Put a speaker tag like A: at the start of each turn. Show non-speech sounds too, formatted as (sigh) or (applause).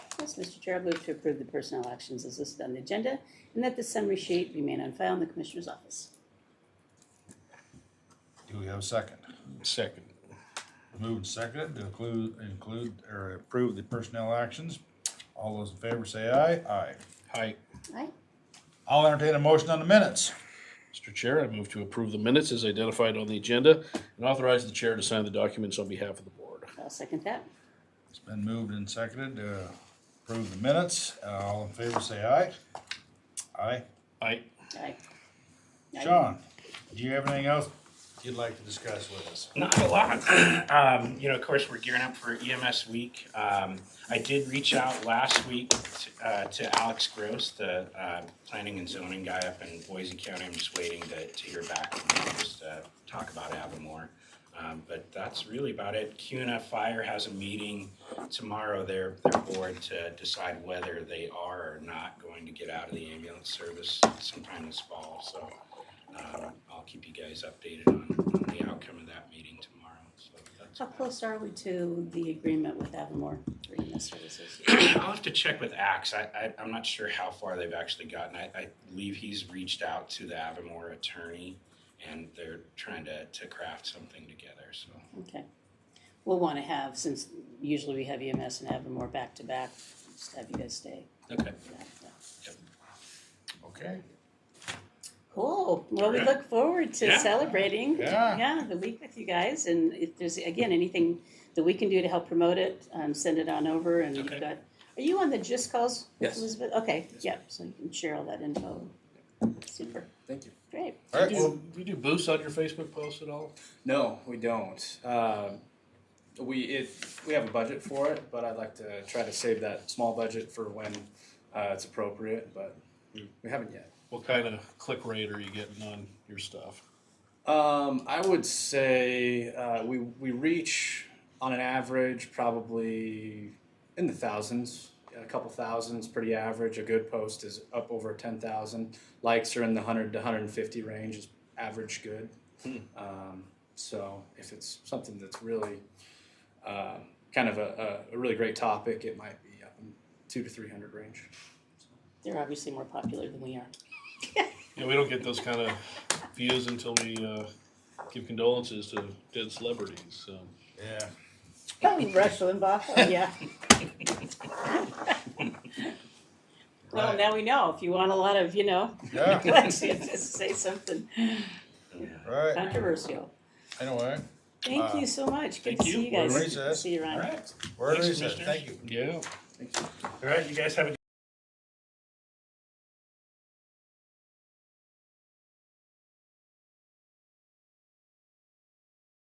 A: process. Mr. Chair, I move to approve the personnel actions as listed on the agenda and that the summary sheet remain on file in the Commissioner's office.
B: Do we have a second?
C: Second.
B: Moved and seconded to include, include, or approve the personnel actions. All those in favor say aye. Aye.
C: Hi,
A: Aye.
B: I'll entertain a motion on the minutes.
C: Mr. Chair, I move to approve the minutes as identified on the agenda and authorize the chair to sign the documents on behalf of the board.
A: I'll second that.
B: It's been moved and seconded to approve the minutes. Uh, All in favor say aye. Aye.
A: Aye.
C: Aye.
A: Aye.
B: Sean, do you have anything else you'd like to discuss with us?
D: Not a lot. (clears throat) Um, you know, of course, we're gearing up for EMS week. Um, I did reach out last week to, uh, to Alex Gross, the, uh, planning and zoning guy up in Boise County. I'm just waiting to, to hear back from him, just, uh, talk about Avamore. Um, but that's really about it. CUNA Fire has a meeting tomorrow, their, their board to decide whether they are or not going to get out of the ambulance service sometime this fall, so. Um, I'll keep you guys updated on, on the outcome of that meeting tomorrow, so that's.
A: How close are we to the agreement with Avamore for EMS services?
D: (clears throat) I'll have to check with Axe, I, I, I'm not sure how far they've actually gotten, I, I believe he's reached out to the Avamore attorney, and they're trying to, to craft something together, so.
A: Okay. We'll want to have, since usually we have EMS and Avamore back to back, just have you guys stay. uh,
D: Okay.
A: for that, yeah.
B: Okay.
A: Cool. Well, we
D: Alright.
A: look forward to
D: Yeah.
A: celebrating.
B: Yeah.
A: the week with you guys, and if there's again anything that we can do to help promote it, um, send it on over. And
D: Okay.
A: you've got. Are you on the Just Calls,
E: Yes.
A: Elizabeth? Okay, yeah. So you can share all that info. Super.
E: Thank you.
A: Great.
B: All right,
C: Do
B: well,
C: you, do you do boosts on your Facebook post at all?
E: No, we don't. Um we it we have a budget for it, but I'd like to try to save that small budget for when uh, it's appropriate, but we haven't yet.
C: What kind of click rate are you getting on your stuff?
E: Um, I would say uh, we we reach on an average probably in the thousands, a couple thousands, pretty average. A good post is up over ten thousand. Likes are in the hundred to hundred and fifty range is average good. Um, so if it's something that's really uh, kind of a, a, a really great topic, it might be up in two to three hundred range.
A: They're obviously more popular than we are.
C: Yeah, we don't get those kind of views until we, uh, give condolences to dead celebrities, so.
B: yeah.
A: Probably Rush Limbaugh. Oh, (laughs) yeah. Well,
B: Right.
A: now we know. If you want a lot of, you know, (laughs)
B: Yeah,
A: let's just say something
B: right,
A: controversial.
B: anyway,
A: Thank
B: Uh,
A: you so much. Good
D: thank
A: to
D: you.
A: see you
B: We're
A: guys.
B: recessed.
A: See you around.
D: All right,
B: we're in
D: Thanks,
B: recess.
D: Commissioners.
B: thank you.
C: Yeah.
D: all right, you guys have a